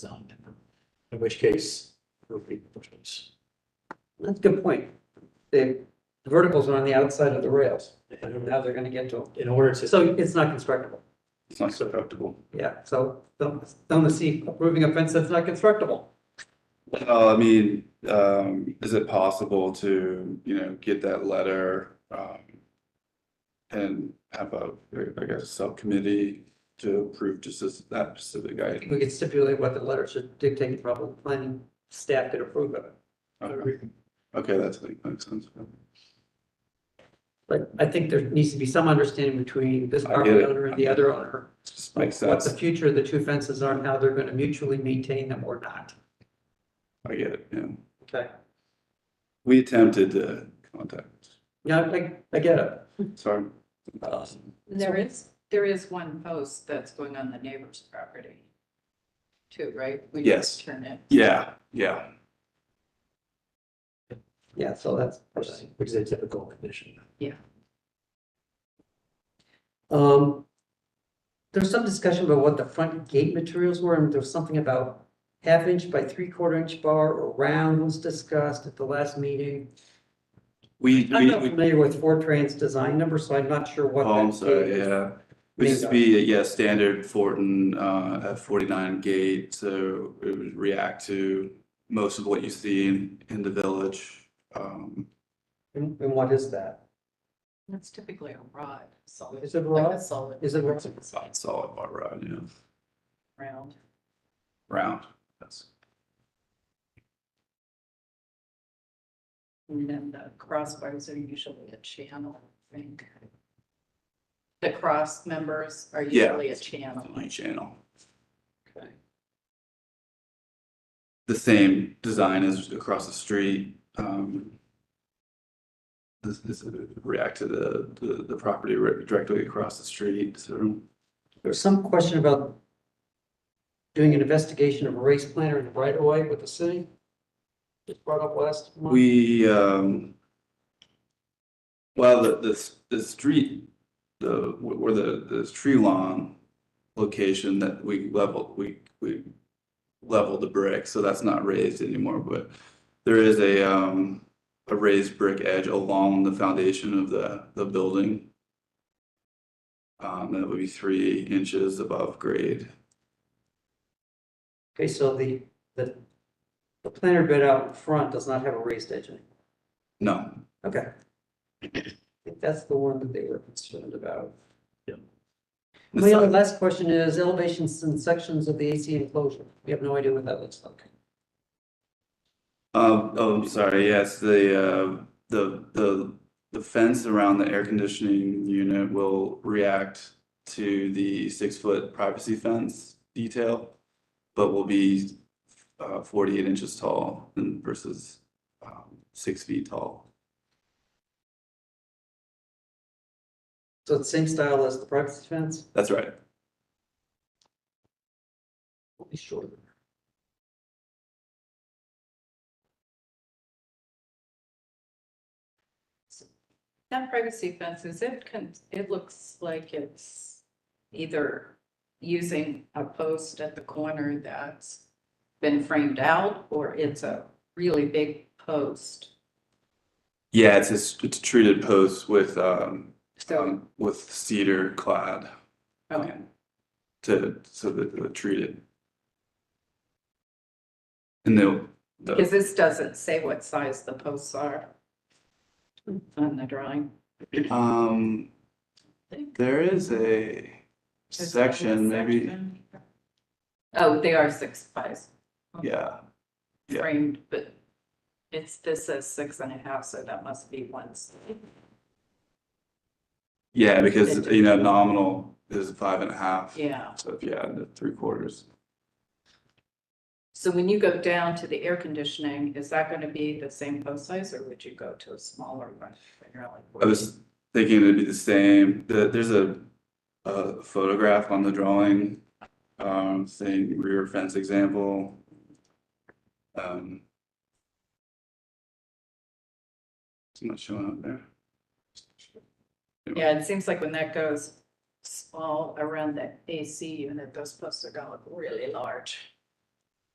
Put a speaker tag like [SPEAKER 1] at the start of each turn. [SPEAKER 1] done. In which case, repeat the process.
[SPEAKER 2] That's a good point. The the verticals are on the outside of the rails.
[SPEAKER 1] In
[SPEAKER 2] Now they're gonna get to them.
[SPEAKER 1] in order to,
[SPEAKER 2] So it's not constructible.
[SPEAKER 3] It's not susceptible.
[SPEAKER 2] Yeah, so don't, don't see approving a fence that's not constructible.
[SPEAKER 3] Well, I mean, um, is it possible to, you know, get that letter, um, and have a, I guess, subcommittee to approve just this, that specific item?
[SPEAKER 2] We could stipulate what the letter should dictate, probably planning staff could approve of it.
[SPEAKER 3] Okay, Okay, that's like, makes sense.
[SPEAKER 2] But I think there needs to be some understanding between this
[SPEAKER 3] I get
[SPEAKER 2] property
[SPEAKER 3] it.
[SPEAKER 2] owner and the other owner.
[SPEAKER 3] Just makes
[SPEAKER 2] What the
[SPEAKER 3] sense.
[SPEAKER 2] future of the two fences are and how they're gonna mutually maintain them or not.
[SPEAKER 3] I get it, yeah.
[SPEAKER 2] Okay.
[SPEAKER 3] We attempted to contact,
[SPEAKER 2] Yeah, I, I get it.
[SPEAKER 3] sorry.
[SPEAKER 4] There is, there is one post that's going on the neighbor's property. Too, right? We
[SPEAKER 3] Yes.
[SPEAKER 4] Turn it.
[SPEAKER 3] Yeah, yeah,
[SPEAKER 2] Yeah, so that's.
[SPEAKER 1] which is a typical condition.
[SPEAKER 2] Um, there's some discussion about what the front gate materials were, and there was something about half inch by three quarter inch bar or round was discussed at the last meeting.
[SPEAKER 3] we,
[SPEAKER 2] I'm
[SPEAKER 3] we,
[SPEAKER 2] not
[SPEAKER 3] we,
[SPEAKER 2] familiar with Fortran's design number, so I'm not sure what.
[SPEAKER 3] oh, I'm
[SPEAKER 2] that gate
[SPEAKER 3] sorry,
[SPEAKER 2] is.
[SPEAKER 3] yeah. We used to be, yeah, standard Fortin, uh, F forty-nine gate, so it would react to most of what you see in, in the village. Um,
[SPEAKER 2] And and what is that?
[SPEAKER 4] That's typically a rod, solid.
[SPEAKER 2] Is it
[SPEAKER 4] Like a
[SPEAKER 2] rod?
[SPEAKER 4] solid.
[SPEAKER 2] Is it rod?
[SPEAKER 3] it's not solid bar rod, you know,
[SPEAKER 4] Round.
[SPEAKER 3] round, that's,
[SPEAKER 4] And then the crossbars are usually a channel, I think. The cross members are
[SPEAKER 3] Yeah.
[SPEAKER 4] usually a channel.
[SPEAKER 3] definitely channel.
[SPEAKER 4] Okay.
[SPEAKER 3] The same design as across the street, um. This, this react to the, the, the property ri- directly across the street, so.
[SPEAKER 2] There's some question about doing an investigation of a race planner in the right of way with the city. Just brought up last month.
[SPEAKER 3] We, um, well, the, the, the street, the, where the, the tree lawn location that we leveled, we, we leveled the brick, so that's not raised anymore, but there is a, um, a raised brick edge along the foundation of the, the building. Um, that would be three inches above grade.
[SPEAKER 2] Okay, so the, the, the planter bed out in front does not have a raised edge anymore.
[SPEAKER 3] No,
[SPEAKER 2] Okay. I think that's the one that they were concerned about.
[SPEAKER 1] Yeah.
[SPEAKER 2] My only last question is elevations and sections of the AC enclosure. We have no idea what that looks like.
[SPEAKER 3] Um, oh, I'm sorry, yes, the, uh, the, the, the fence around the air conditioning unit will react to the six-foot privacy fence detail, but will be, uh, forty-eight inches tall and versus, um, six feet tall.
[SPEAKER 2] So it's same style as the privacy fence?
[SPEAKER 3] That's right.
[SPEAKER 2] Only shorter.
[SPEAKER 4] That privacy fences, it can, it looks like it's either using a post at the corner that's been framed out, or it's a really big post.
[SPEAKER 3] Yeah, it's a, s- it's a treated post with, um,
[SPEAKER 4] So,
[SPEAKER 3] um, with cedar clad
[SPEAKER 4] okay,
[SPEAKER 3] to, so that the treated. And they'll, the-
[SPEAKER 4] because this doesn't say what size the posts are on the drawing.
[SPEAKER 3] Um,
[SPEAKER 4] Think.
[SPEAKER 3] there is a
[SPEAKER 4] Is that a
[SPEAKER 3] section, maybe,
[SPEAKER 4] section? Oh, they are six by
[SPEAKER 3] yeah, Yeah.
[SPEAKER 4] framed, but it's, this says six and a half, so that must be one.
[SPEAKER 3] yeah, because, you know, nominal is five and a half.
[SPEAKER 4] Yeah.
[SPEAKER 3] So, if you add the three quarters.
[SPEAKER 4] So when you go down to the air conditioning, is that gonna be the same post size or would you go to a smaller one? Figure out like
[SPEAKER 3] I was thinking it'd be the same, the, there's a, a photograph on the drawing, um, saying rear fence example. Um. It's not showing up there.
[SPEAKER 4] Yeah, it seems like when that goes small around that AC unit, those posts are gonna look really large.